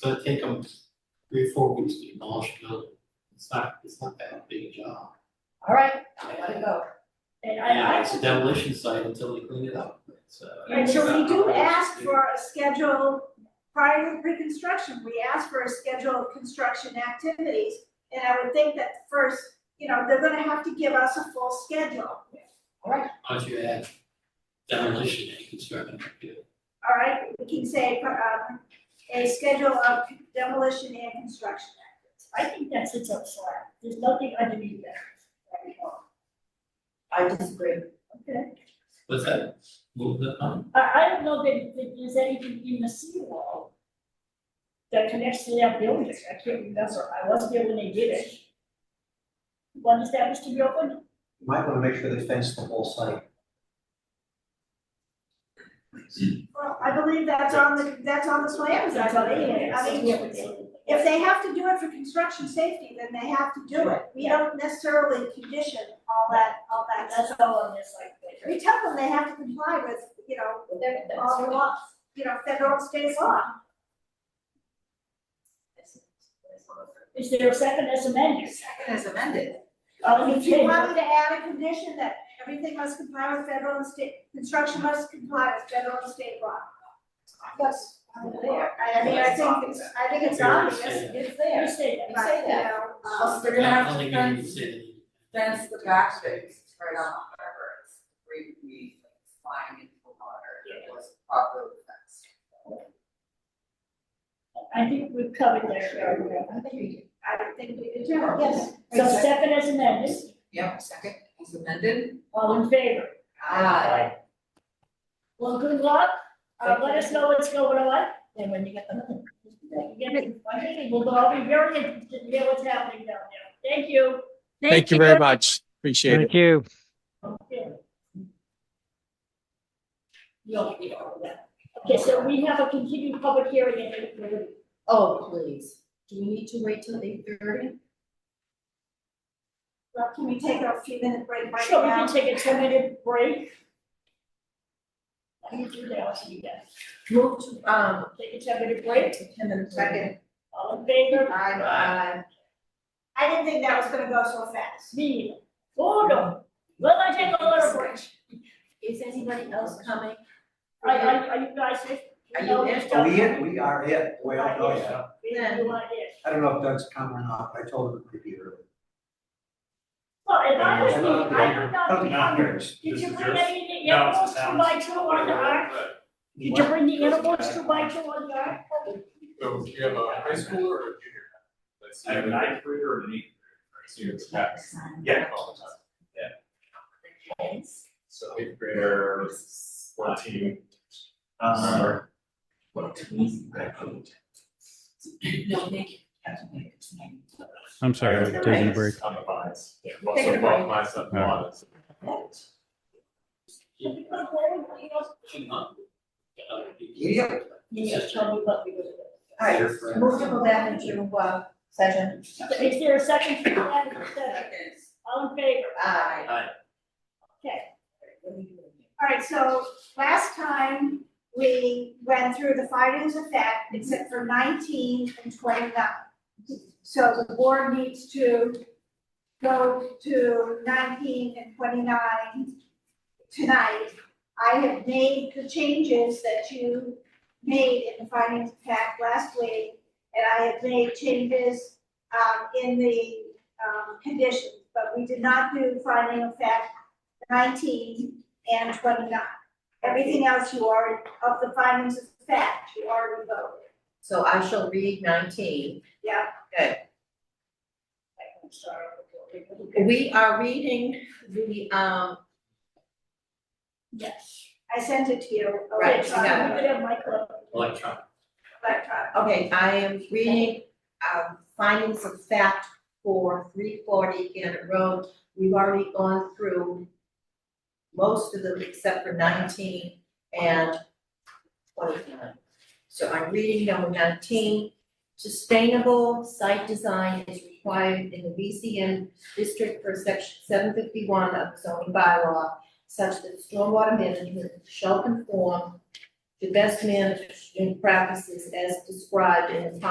It's gonna take them three or four weeks to demolish the building. It's not, it's not that big a job. All right, I gotta go. And I, Yeah, I, it's a demolition site until they clean it up. It's, uh, and so we it's not do how it is ask to do. for a schedule, prior to pre-construction, we ask for a schedule of construction activities. And I would think that first, you know, they're gonna have to give us a full schedule, Once you add demolition and construction, you do. all right? We can say, um, a schedule of demolition and construction activities. I think that sits up slack, there's nothing underneath that. I disagree. Okay, what's that? Move the, um, I, I don't know that, that there's anything in the seawall that connects to that building, I can't remember, I wasn't there when they did it. One established to be open, You Might wanna make sure they fence the whole site. Well, I believe that's on the, that's on the plans, that's on it, I mean, if they have to do it for construction safety, then they have to do it. We don't necessarily condition all that, all that, that's all on this, like, that. we tell them they have to comply with, you know, all the laws, you know, federal and state law. is there a second as amended? Second is amended. All in If you favor? want me to add a condition that everything must comply with federal and state, construction must comply with federal and state law. Yes. There, I, I mean, I think, it's- I think it's obvious, Yeah. It's You there. say that. You say but, you know, Um, um, they're gonna I have don't to think you need to fence, say that. fence the back space, right on, whatever, it's three feet flying into the water, it was properly fenced. I think we've covered that area. I think we did. I think we did, yes. So second as amended, Yep, second is amended. all in favor? Aye. Well, good luck, uh, let us know what's going on, and when you get the. Get it, we'll all be very interested to hear what's happening down there, thank you. Thank you very much. Appreciate it. Thank you. Okay. You'll be all right. Okay, so we have a continued public hearing at eight thirty. Oh, please, do we need to wait till eight thirty? Well, can we take a few minute break right So we now? can take a ten minute break. Let me do that, I'll see you guys, Move to, um, take a ten minute break, ten minutes. Second. all in favor, Aye. I didn't think that was gonna go so fast. me, oh no, well, I take a little break. Is anybody else coming? I, I, are you guys, Are you know, in? stuff- Are we in? We are in. We don't know yet. We do want it. I don't know if Doug's coming or not, but I told him it could be early. Well, if I was me, I would I not don't be think hungry. yours. Did you This is bring yours? any animals to my tour on the ark? Did you bring the animals to my tour on the ark? So you have a high schooler or a junior? I have a ninth grader and an eighth grader. So you have a- Yeah. So eighth grader, fourteen. Uh, No, thank you. I'm sorry, I'm taking a break. On the vines. Yeah, Take also a both break. my son and Lana's. Yeah. You just tell me what we did. Alright, move to go back into, uh, session. Is there a second to that, or second? Second. all in favor? Aye. Okay, All right, so last time we went through the findings of fact, except for nineteen and twenty-nine. So the board needs to go to nineteen and twenty-nine tonight. I have made the changes that you made in the findings of fact last week, and I have made changes um, in the um, conditions, but we did not do finding of fact nineteen and twenty-nine. Everything else you already, of the findings of fact, you already voted, So I shall read nineteen. yeah? I'm sorry. We are reading the, um, Yes. I sent it to you. Right, Okay, so got I'm gonna have Michael. Electronic. Electronic. okay, I am reading, um, findings of fact for three forty Gannett Road. We've already gone through most of them except for nineteen and twenty-nine. So I'm reading number nineteen. Sustainable site design is required in the VCN district for section seven fifty-one of the zoning bylaw such that stormwater management shall conform to best management practices as described in the